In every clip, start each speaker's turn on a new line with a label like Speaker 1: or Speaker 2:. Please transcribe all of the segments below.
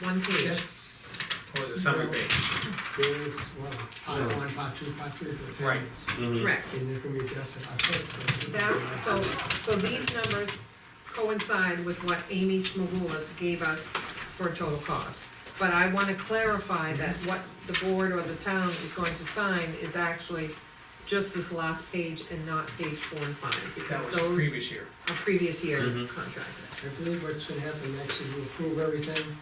Speaker 1: one page.
Speaker 2: That's,
Speaker 3: Or is it summary page?
Speaker 2: there's, well, part one, part two, part three, for the
Speaker 3: Right.
Speaker 2: families.
Speaker 4: Mm-hmm.
Speaker 1: Correct.
Speaker 2: And they're gonna be adjusted, I think.
Speaker 1: That's, so, so these numbers coincide with what Amy Smogulis gave us for total cost. But I wanna clarify that what the board or the town is going to sign is actually just this last page and not page four and five,
Speaker 3: That
Speaker 1: because
Speaker 3: was
Speaker 1: those
Speaker 3: previous Mm-hmm. year.
Speaker 1: are previous year
Speaker 5: Mhm.
Speaker 1: contracts.
Speaker 2: I believe what's gonna happen next is we'll approve everything.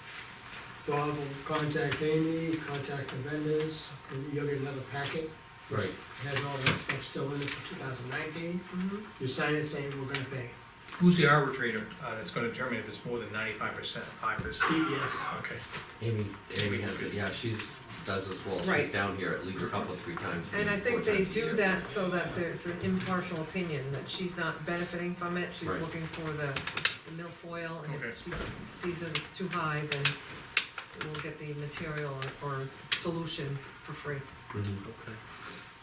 Speaker 2: Bob will contact Amy, contact the vendors, and you'll get another packet.
Speaker 5: Right.
Speaker 2: It Has all that stuff still in it for two thousand nineteen.
Speaker 1: Mhm.
Speaker 2: You sign it saying we're gonna pay.
Speaker 3: Who's the arbitrator uh, that's gonna determine if it's more than ninety-five percent, five percent?
Speaker 2: Yes.
Speaker 3: Okay,
Speaker 5: Amy, Amy
Speaker 3: Amy
Speaker 5: has
Speaker 3: did.
Speaker 5: it, yeah, she's, does as well, she's
Speaker 1: Right.
Speaker 5: down here at least a couple, three times.
Speaker 1: And I think
Speaker 5: four
Speaker 1: they
Speaker 5: times a
Speaker 1: do
Speaker 5: year.
Speaker 1: that so that there's an impartial opinion, that she's not benefiting from it, she's
Speaker 5: Right.
Speaker 1: looking for the, the milfoil, and if
Speaker 3: Okay.
Speaker 1: she sees that it's too high, then we'll get the material or, or solution for free.
Speaker 5: Mhm.
Speaker 4: Okay.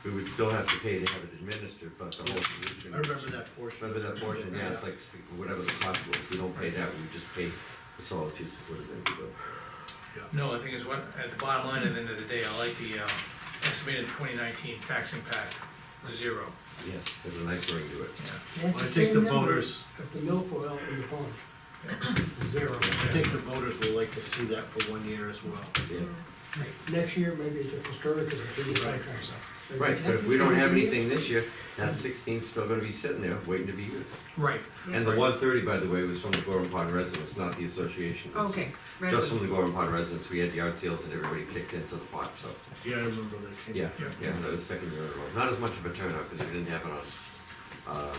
Speaker 5: We would still have to pay to have it administered, but the whole solution.
Speaker 4: I remember that portion.
Speaker 5: Remember that portion, yeah, it's like, s- whatever the cost was, if we don't pay that, we just pay the solitude to put it in, so.
Speaker 3: no, the thing is, what, at the bottom line, at the end of the day, I like the uh, estimated twenty nineteen tax impact, zero.
Speaker 5: Yes, there's a nice ring to it.
Speaker 4: I
Speaker 2: That's the
Speaker 4: think the
Speaker 2: same number
Speaker 4: voters,
Speaker 2: of the milfoil in the pond. Zero.
Speaker 4: I think the voters will like to see that for one year as well.
Speaker 5: Yeah.
Speaker 2: Next year, maybe it's a different story, because it's gonna be
Speaker 4: Right.
Speaker 2: contracts up.
Speaker 5: Right, but if we don't have anything this year, that sixteen's still gonna be sitting there, waiting to be used.
Speaker 3: Right,
Speaker 5: And
Speaker 1: Yeah.
Speaker 5: the one thirty, by the way, was from the Gorham Pond residents, not the association. This
Speaker 1: Okay,
Speaker 5: was Just from
Speaker 1: residents.
Speaker 5: the Gorham Pond residents, we had yard sales and everybody kicked into the pot, so,
Speaker 4: Yeah, I remember that.
Speaker 5: yeah, yeah, that was second year in a row. Not as much of a turnout, because we didn't have it on, um.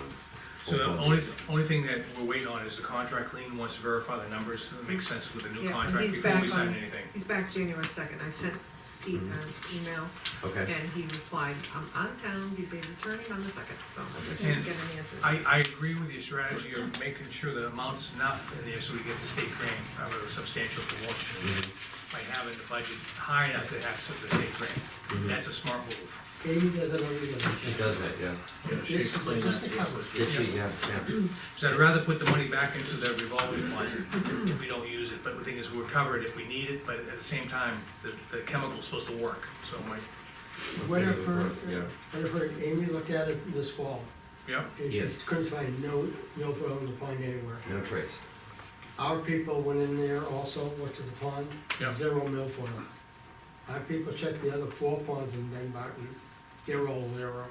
Speaker 3: so the
Speaker 5: full
Speaker 3: only,
Speaker 5: conference.
Speaker 3: only thing that we're waiting on is the contract lien, wants to verify the numbers, so it makes sense with the new
Speaker 1: Yeah,
Speaker 3: contract
Speaker 1: he's
Speaker 3: before we
Speaker 1: back
Speaker 3: sign
Speaker 1: on-
Speaker 3: anything.
Speaker 1: He's back January second, I sent Pete an email,
Speaker 5: Mm-hmm. Okay,
Speaker 1: and he replied, I'm out of town, he'd be returning on the second, so I
Speaker 5: Okay.
Speaker 1: didn't
Speaker 3: And
Speaker 1: get an answer.
Speaker 3: I, I agree with your strategy of making sure the amount's enough in there so we get the state grant, uh, a substantial promotion.
Speaker 5: Mm-hmm.
Speaker 3: By having the budget high enough to have some of the state grant, that's a smart move.
Speaker 2: Amy does it every year.
Speaker 5: she does that, yeah.
Speaker 4: Yeah, she
Speaker 2: Just-
Speaker 4: explained
Speaker 2: just
Speaker 4: that
Speaker 2: the
Speaker 4: to us.
Speaker 2: cover.
Speaker 5: Did she, yeah, yeah.
Speaker 3: So I'd rather put the money back into the revolving fund if we don't use it, but the thing is, we're covered if we need it, but at the same time, the, the chemical's supposed to work, so my,
Speaker 2: What if her,
Speaker 5: Yeah.
Speaker 2: what if her, Amy looked at it this fall,
Speaker 3: yeah,
Speaker 2: and she
Speaker 5: Yes.
Speaker 2: couldn't find no, no oil in the pond anywhere.
Speaker 5: No trace.
Speaker 2: Our people went in there also, looked at the pond,
Speaker 3: Yeah.
Speaker 2: zero milfoil. Our people checked the other four ponds in Dunbarton, they're all zero.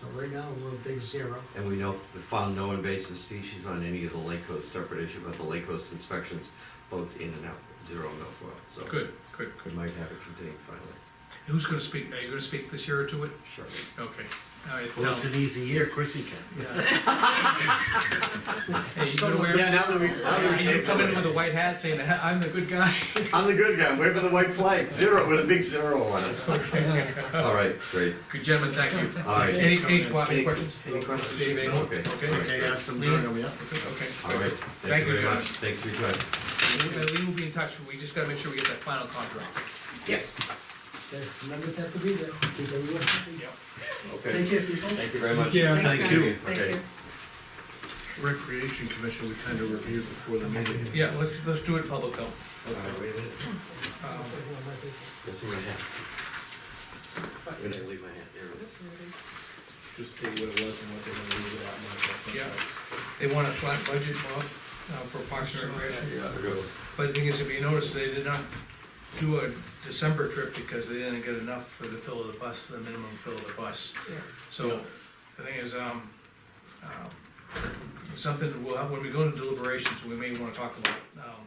Speaker 2: So right now, we're a big zero.
Speaker 5: And we know, we found no invasive species on any of the lake coast, separate issue about the lake coast inspections, both in and out, zero milfoil, so.
Speaker 3: good, good,
Speaker 5: We
Speaker 3: good.
Speaker 5: might have it contained finally.
Speaker 3: Who's gonna speak, are you gonna speak this year to it?
Speaker 5: Sure.
Speaker 3: Okay. All right,
Speaker 4: Well, it's
Speaker 3: tell-
Speaker 4: an easy year, of course you can.
Speaker 3: Yeah. Hey, you gonna wear?
Speaker 5: Yeah, now that we, now
Speaker 3: Are
Speaker 5: that
Speaker 3: you gonna
Speaker 5: we.
Speaker 3: come in with a white hat saying, I'm the good guy?
Speaker 5: I'm the good guy, waving the white flag, zero, with a big zero on it. All right, great,
Speaker 3: Good gentlemen, thank you.
Speaker 5: all right.
Speaker 3: Any, any, any
Speaker 5: Any-
Speaker 3: questions?
Speaker 5: any questions?
Speaker 3: Dave, any-
Speaker 5: Okay.
Speaker 3: Okay,
Speaker 4: Okay, ask them
Speaker 3: Leave it.
Speaker 4: during the- yeah.
Speaker 3: okay.
Speaker 5: All right,
Speaker 3: Thank
Speaker 5: thank you
Speaker 3: you,
Speaker 5: very
Speaker 3: John.
Speaker 5: much, thanks for your time.
Speaker 3: Uh, Lee will be in touch, we just gotta make sure we get that final contract.
Speaker 1: Yes.
Speaker 2: The numbers have to be there, keep everyone happy.
Speaker 3: Yep.
Speaker 2: Take
Speaker 5: Okay,
Speaker 2: care, people.
Speaker 5: thank you very much.
Speaker 4: Yeah.
Speaker 1: Thanks,
Speaker 4: Thank
Speaker 1: guys.
Speaker 4: you.
Speaker 1: Thank
Speaker 5: Okay.
Speaker 1: you.
Speaker 4: Recreation Commission, we kind of reviewed before the meeting.
Speaker 3: Yeah, let's, let's do it public though.
Speaker 5: All right, wait a minute,
Speaker 3: Um,
Speaker 5: let's see my hat. When I leave my hat, there it is.
Speaker 4: Just state what it was and what they're gonna leave it at. and what they're gonna-
Speaker 3: They want a flat budget, Bob, uh, for Parks and Recreation.
Speaker 5: Yeah, I go.
Speaker 3: But the thing is, if you notice, they did not do a December trip because they didn't get enough for the fill of the bus, the minimum fill of the bus.
Speaker 1: Yeah.
Speaker 3: So, the thing is, um, um, something, that we'll have- when we go into deliberations, we may wanna talk about, um,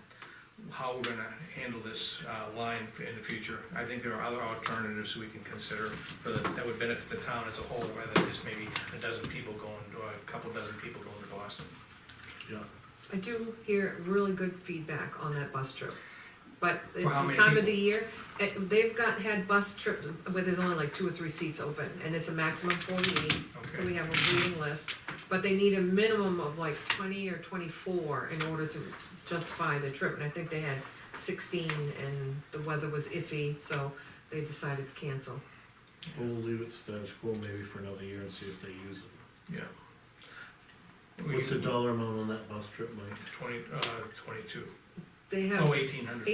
Speaker 3: how we're gonna handle this, uh, line f- in the future. I think there are other alternatives we can consider for, the- that would benefit the town as a whole, rather than just maybe a dozen people going, or a couple dozen people going to Boston.
Speaker 4: Yeah.
Speaker 1: I do hear really good feedback on that bus trip. But it's
Speaker 3: how
Speaker 1: the
Speaker 3: many
Speaker 1: time of
Speaker 3: people?
Speaker 1: the year, eh, they've got, had bus trips where there's only like two or three seats open, and it's a maximum forty-eight. So
Speaker 3: Okay.
Speaker 1: we have a waiting list, but they need a minimum of like twenty or twenty-four in order to justify the trip. And I think they had sixteen, and the weather was iffy, so they decided to cancel.
Speaker 4: We'll leave it status quo maybe for another year and see if they use it.
Speaker 3: Yeah.
Speaker 4: What's the dollar amount on that bus trip, Mike?
Speaker 3: Twenty, uh, twenty-two.
Speaker 1: They have
Speaker 3: Oh, eighteen hundred.